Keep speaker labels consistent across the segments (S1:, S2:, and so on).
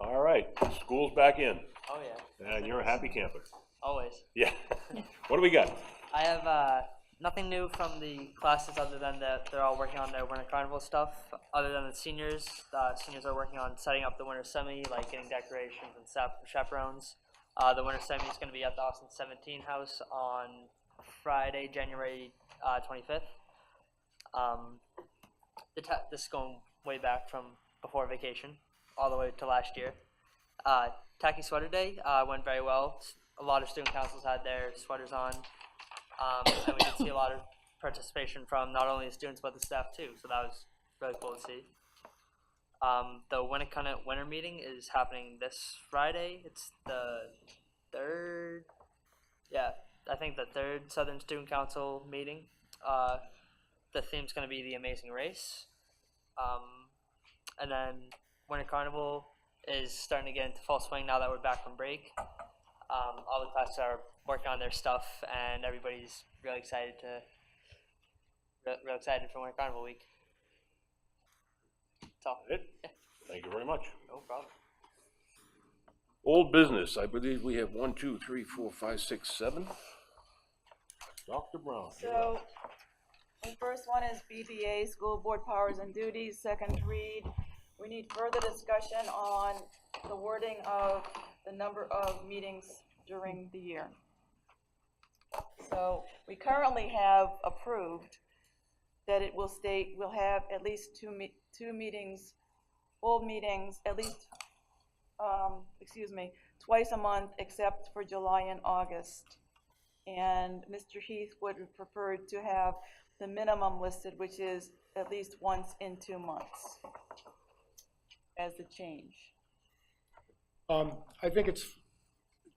S1: All right, school's back in,
S2: Oh, yeah,
S1: and you're a happy camper.
S2: always.
S1: Yeah. What do we got?
S2: I have uh, nothing new from the classes other than that they're all working on their winter carnival stuff. Other than the seniors, uh, seniors are working on setting up the winter semi, like getting decorations and sap- chaperones. Uh, the winter semi is going to be at the Austin 17 house on Friday, January uh, 25th. Um, the ta this is going way back from before vacation, all the way to last year. Uh, tacky sweater day uh, went very well. S- A lot of student councils had their sweaters on, um, and we did see a lot of participation from not only the students but the staff too. So that was really cool to see. Um, the Winnicott winter meeting is happening this Friday. It's the third, yeah, I think the third Southern Student Council meeting. Uh, the theme's going to be the Amazing Race, um, and then Winter Carnival is starting to get into full swing now that we're back from break. Um, all the classes are working on their stuff, and everybody's really excited to real, real excited for Winter Carnival week. That's all.
S1: It? Thank you very much.
S2: No problem.
S1: Old business, I believe we have one, two, three, four, five, six, seven. Dr. Brown. you're up.
S3: So, the first one is BDA, School Board Powers and Duties, second read. We need further discussion on the wording of the number of meetings during the year. So, we currently have approved that it will state we'll have at least two me, two meetings, full meetings, at least, um, excuse me, twice a month except for July and August. And Mr. Heath would prefer to have the minimum listed, which is at least once in two months as the change.
S4: Um, I think it's,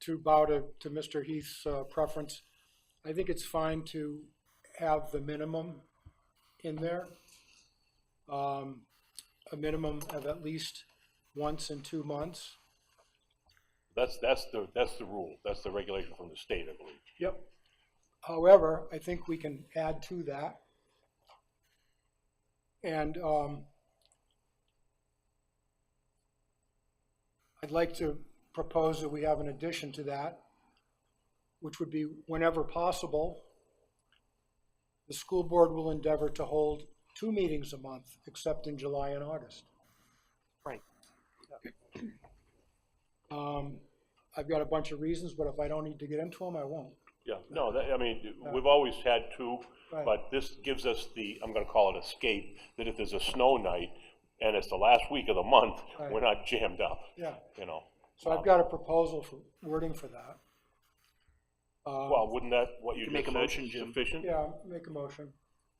S4: to bow to, to Mr. Heath's uh, preference, I think it's fine to have the minimum in there. Um, A minimum of at least once in two months.
S1: That's, that's the, that's the rule, that's the regulation from the state, I believe.
S4: Yep. However, I think we can add to that. And um, I'd like to propose that we have an addition to that, which would be whenever possible, the school board will endeavor to hold two meetings a month, except in July and August.
S2: Right.
S4: Um, I've got a bunch of reasons, but if I don't need to get into them, I won't.
S1: Yeah, no, that, I mean, we've always had two,
S4: Right.
S1: but this gives us the, I'm gonna call it escape, that if there's a snow night and it's the last week of the month, we're not jammed up,
S4: Yeah.
S1: you know?
S4: So I've got a proposal for wording for that. Um,
S1: Well, wouldn't that, what you
S5: Can make
S1: just
S5: a
S1: said,
S5: motion, Jim.
S1: sufficient?
S4: Yeah, make a motion.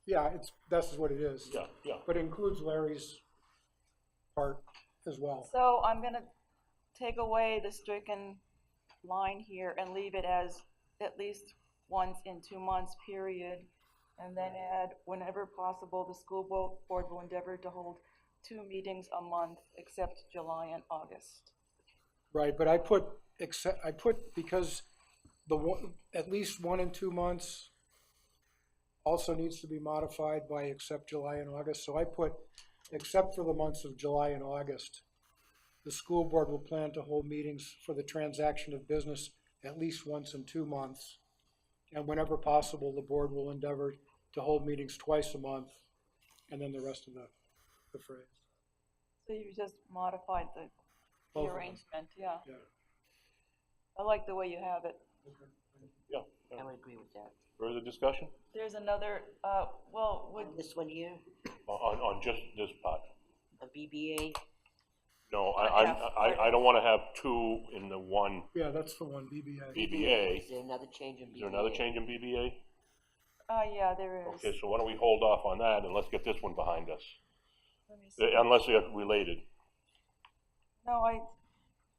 S4: Yeah, it's, this is what it is.
S1: Yeah, yeah.
S4: But it includes Larry's part as well.
S3: So I'm gonna take away the stricken line here and leave it as at least once in two months, period. And then add, whenever possible, the school bo- board will endeavor to hold two meetings a month except July and August.
S4: Right, but I put, except, I put, because the one, at least one in two months also needs to be modified by except July and August, so I put, except for the months of July and August, the school board will plan to hold meetings for the transaction of business at least once in two months. And whenever possible, the board will endeavor to hold meetings twice a month, and then the rest of the, the phrase.
S3: So you just modified the- the
S4: Both of them.
S3: arrangement, yeah.
S4: Yeah.
S3: I like the way you have it.
S1: Yeah, yeah.
S6: I would agree with that.
S1: Further discussion
S3: There's another, uh, well, would,
S6: On this one here,
S1: on, on just this part?
S6: a BBA,
S1: No, I, I'm-
S3: Yeah.
S1: I, I don't want to have two in the one
S4: Yeah, that's the one, BBA.
S1: BBA.
S6: is there another change in BBA?
S1: Is there another change in BBA?
S3: uh, yeah, there is.
S1: Okay, so why don't we hold off on that and let's get this one behind us,
S3: Let me see.
S1: Uh, unless they're related.
S3: No, I,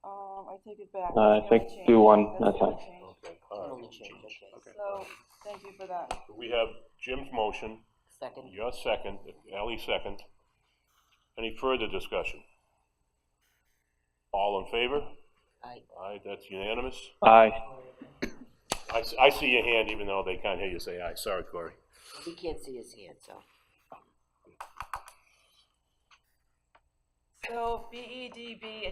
S3: um, I take it back.
S7: No, Uh, I
S3: That's the
S7: think
S3: only change.
S7: do one,
S3: That's the
S7: that's
S3: only change.
S1: Okay, all
S6: Only
S1: right.
S6: change, okay.
S3: So, thank you for that.
S1: So We have Jim's motion,
S6: Second,
S1: your second, Ally second. Any further discussion? All in favor?
S6: I,
S1: Aye, that's unanimous.
S7: Aye.
S1: I, s- I see your hand even though they can't hear you say aye. Sorry, Corey.
S6: we can't see his hand, so.
S3: E So BEDB